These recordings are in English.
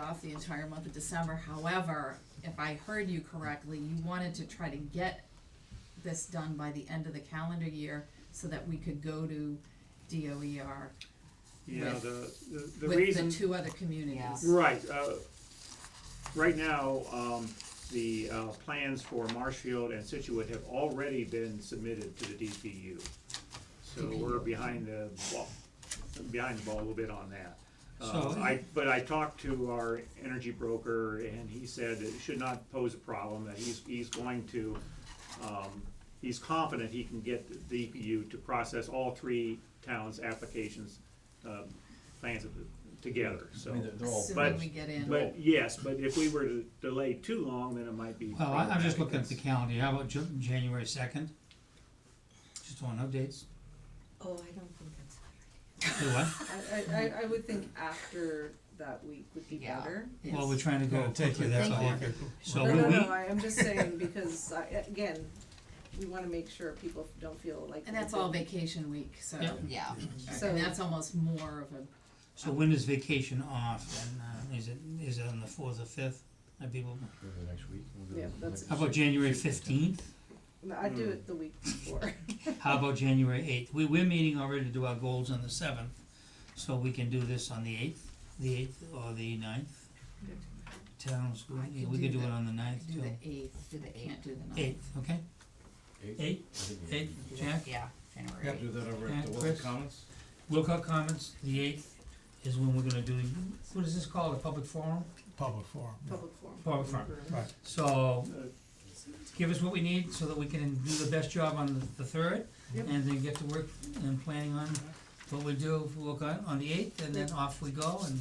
off the entire month of December, however, if I heard you correctly, you wanted to try to get this done by the end of the calendar year, so that we could go to DOER Yeah, With- the, the, the with reason. the two other communities. Right, uh, right now, um, the, uh, plans for Marshfield and Situate have already been submitted to the DPU. So we're behind the ball, behind the ball a little bit on that. Uh, So- I, but I talked to our energy broker and he said it should not pose a problem, that he's, he's going to, um, he's confident he can get the DPU to process all three towns' applications, um, plans of- together, so. I mean, they're, they're all. Assuming but- we get in. But yes, but if we were to delay too long, then it might be. Well, I, I'm just problematic. looking at the calendar, how about Ju- January second? Just on updates, Oh, I don't think that's do what? I, I, I- I would think after that week would be Yeah. better. Well, we're trying to go Gotta take quickly, it, that's take all. it. So No, will no, we, no, I, I'm just saying because I, again, we wanna make sure people don't feel like. And that's all vacation week, so, Yeah. Yeah, and that's almost more of a so when is vacation off, and, uh, is it, is it on the fourth or fifth? Are people, Go to the next week. we'll go to Yeah, the that's- next- how about January fifteenth, No, I Hmm. do it the week before. how about January eighth? We, we're meeting already to do our goals on the seventh, so we can do this on the eighth, the eighth or the ninth. Town school, I yeah, can we could do do it the- on the ninth do too. the eighth, do the eight, can't do the ninth. Eighth, okay, Eight? eight, I think we- eight, Jack? yeah, January eighth. Do that over Yeah, at the Wilson Chris? Commons? Wilcox Commons, the eighth, is when we're gonna do, the- what is this called, a public forum? public forum. Public forum. Public forum. Mm-hmm. So, uh, give us what we need so that we can do the best job on the, the third, Yep. and then get to work and planning on what we do for Wilcox on the eighth, and then off we go, and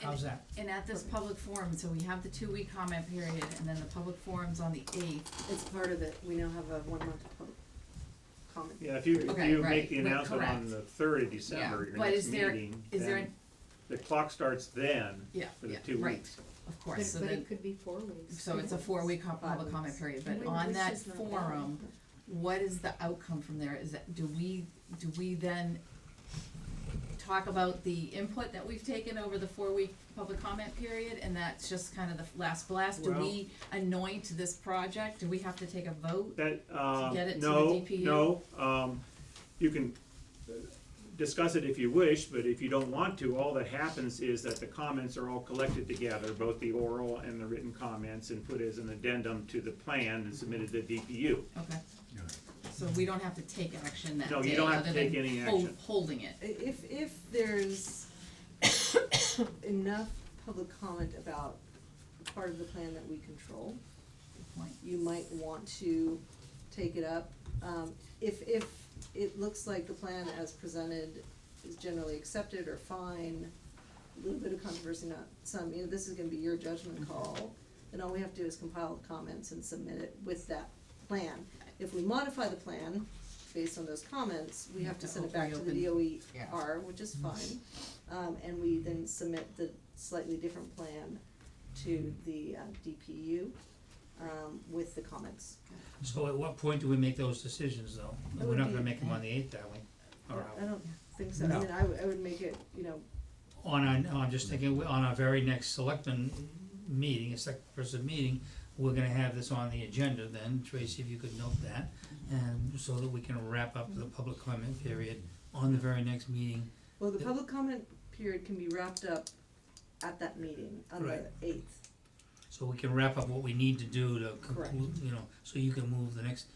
how's that? And at this public forum, so we have the two-week comment period, and then the public forum's on the eighth, It's part of it, we now have a one month public comment. Yeah, if you, if Okay, you right, make the right, announcement on correct. the third of December, your but next is there- meeting, is there then the clock starts then yeah, for the yeah, two right, weeks. of But, course, so but then- it could be four weeks. so it's a four-week com- Five public weeks. comment period, Wh- but which on that is not bad. forum, what is the outcome from there, is that, do we, do we then talk about the input that we've taken over the four-week public comment period, and that's just kind of the last blast, do Well- we anoint this project, do we have to take a vote? That, um, get it to the no, DPU? no, um, you can uh, discuss it if you wish, but if you don't want to, all that happens is that the comments are all collected together, both the oral and the written comments, and put as an addendum to the plan and submitted to DPU. Okay, so we don't have to take action that day, No, other you than don't have to take any hol- action. holding it. I- If, if there's enough public comment about the part of the plan that we control, Point. you might want to take it up. Um, if, if it looks like the plan as presented is generally accepted or fine, a little bit of controversy, not some, you know, this is gonna be your judgment call, then all we have to do is compile the comments and submit it with that plan. If we modify the plan based on those comments, we have to send it back to the Yeah. DOER, which is fine. Um, and we then submit the slightly different plan to the uh, DPU, um, with the comments. So at what point do we make those decisions, though? That We're would not be- gonna make them on the eighth, are we? Or I don't think so, I No. mean, I would, I would make it, you know, on our, no, I'm just thinking, we- on our very next selectmen meeting, a select person meeting, we're gonna have this on the agenda then, Tracy, if you could note that, and so that we can wrap up the public comment period on the very next meeting. well, the Yeah. public comment period can be wrapped up at that meeting on the Right. eighth. So we can wrap up what we need to do to conclude, Correct. you know, so you can move the next,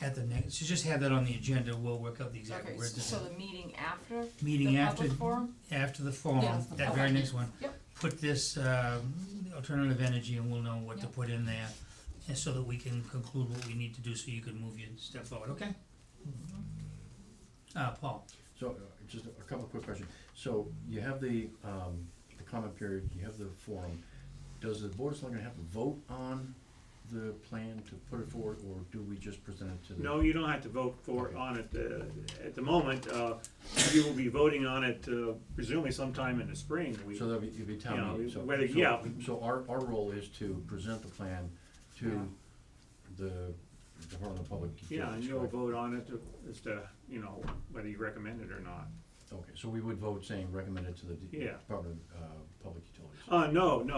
at the next, so just have that on the agenda, we'll work out the exact Okay, words. so so the meeting after Meeting the after, public forum? after the forum, Yeah, that very okay. next one. Yep. Put this, um, alternative energy and we'll know what to Yep. put in there, and so that we can conclude what we need to do so you can move your step forward, okay? Mm-hmm. Uh, Paul, So, uh, just a couple of quick questions. So you have the, um, the comment period, you have the forum. Does the board not gonna have to vote on the plan to put it forward, or do we just present it to the? No, you don't have to vote for it on it, uh, at the moment, uh, you will be voting on it uh, presumably sometime in the spring. We- So that'll be, it'll be Yeah, town meeting, so. whether- so- yeah. So our, our role is to present the plan Yeah. to the Department of Public. Yeah, and Utilities, you'll correct? vote on it to- as to, you know, whether you recommend it or not. Okay, so we would vote saying recommend it to the D- Yeah. Department of, uh, Public Utilities. Uh, no, no,